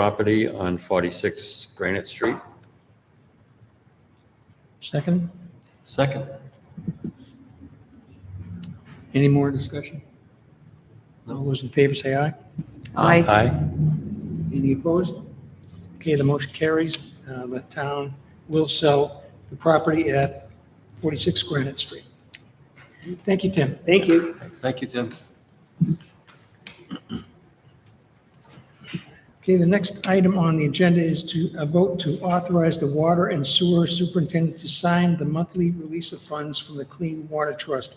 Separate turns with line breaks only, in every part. property on 46 Granite Street.
Second,
Second.
any more discussion? All those in favor say aye.
Aye.
Aye.
Any opposed? Okay, the motion carries. Uh, The town will sell the property at 46 Granite Street. Thank you, Tim. Thank you.
Thank you, Tim.
Okay, the next item on the agenda is to a vote to authorize the water and sewer superintendent to sign the monthly release of funds from the Clean Water Trust.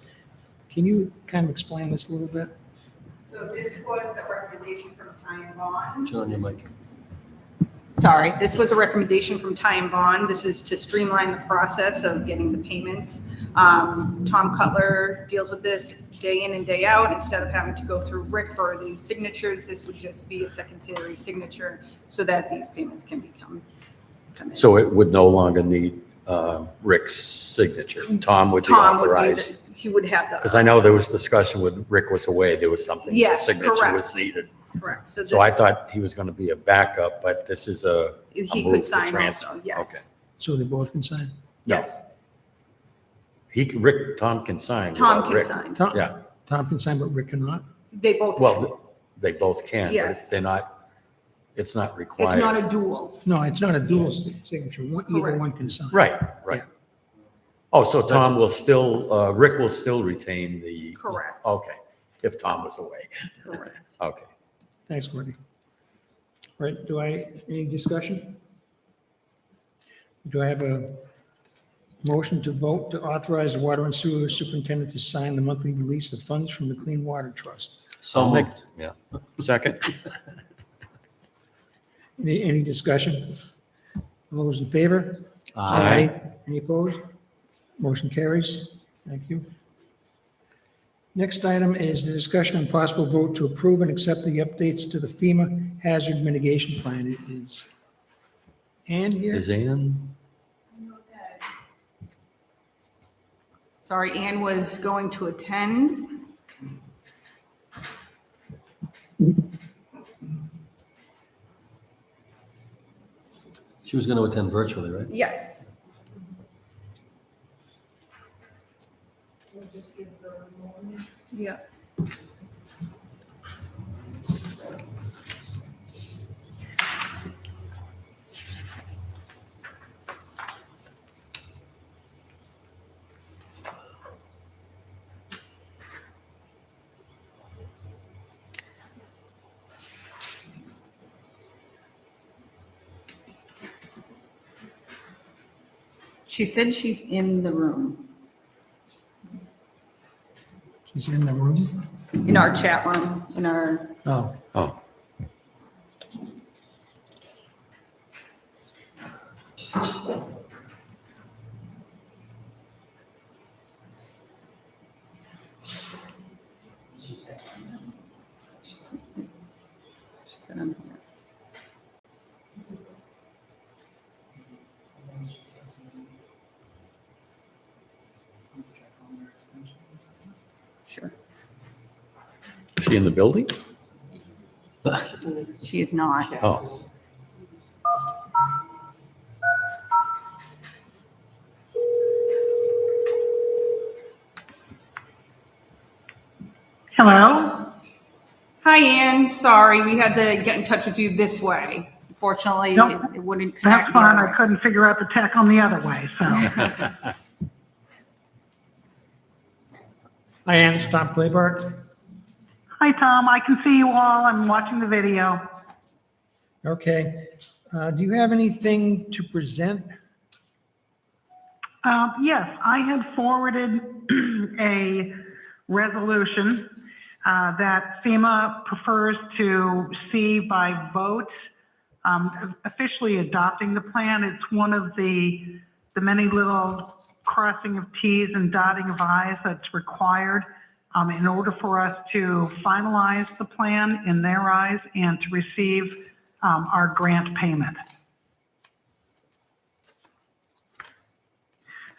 Can you kind of explain this a little bit?
So this was a recommendation from Ty and Bond.
Turn on your mic.
Sorry, this was a recommendation from Ty and Bond. This is to streamline the process of getting the payments. Um, Tom Cutler deals with this day in and day out. Instead of having to go through Rick for the signatures, this would just be a secondary signature so that these payments can become, come in.
So it would no longer need uh, Rick's signature. Tom would be
Tom would be, the-
authorized.
he would have the.
Because I know there was discussion when Rick was away, there was something, the
Yes,
signature
correct.
was needed.
Correct. So
So I
this-
thought he was going to be a backup, but this is a,
He
moved
could
to
sign
transfer.
also, yes.
So they both can sign?
No.
Yes,
he, can- Rick, Tom can sign.
Tom
without
can
Uh, Rick.
sign.
Tom-
Yeah.
Tom can sign, but Rick cannot?
They both.
Well, they both can, but
Yes.
they're not, it's not
It's not
required.
a duel.
No, it's not a dual signature. One- Either
Correct.
one can sign.
Right, right.
Yeah.
Oh, so Tom will still, uh, Rick will still retain the.
Correct.
Okay, if Tom was away.
Correct.
Okay.
Thanks, Courtney. All Right, do I, any discussion? Do I have a motion to vote to authorize the water and sewer superintendent to sign the monthly release of funds from the Clean Water Trust?
So moved.
Yeah. Second?
Any, any discussion? All those in favor?
Aye.
Any opposed? Motion carries. Thank you. Next item is the discussion and possible vote to approve and accept the updates to the FEMA Hazard Mitigation Plan. It is Ann here?
Is Ann?
Sorry, Anne was going to attend.
She was going to attend virtually, right?
Yes. Yeah. She said she's in the room,
She's in the room?
in our chat room, in our,
Oh,
Oh,
she said I'm here. Sure.
is she in the building?
She is not.
Oh,
Hello?
Hi, Anne. Sorry, we had to get in touch with you this way. Fortunately,
Nope.
it it wouldn't
That's
connect. the
fine.
other
I couldn't figure out the tech on the other way, so.
I am Tom Claybart.
Hi, Tom. I can see you all. I'm watching the video.
Okay. Uh, Do you have anything to present?
Uh, Yes, I had forwarded a resolution uh, that FEMA prefers to see by vote, um, officially adopting the plan. It's one of the, the many little crossing of Ts and dotting of Is that's required um, in order for us to finalize the plan in their eyes and to receive um, our grant payment.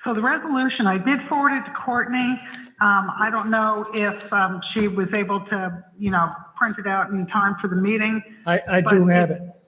So the resolution, I did forward it to Courtney. Um, I don't know if, um, she was able to, you know, print it out in time for the meeting.
I, I do have it.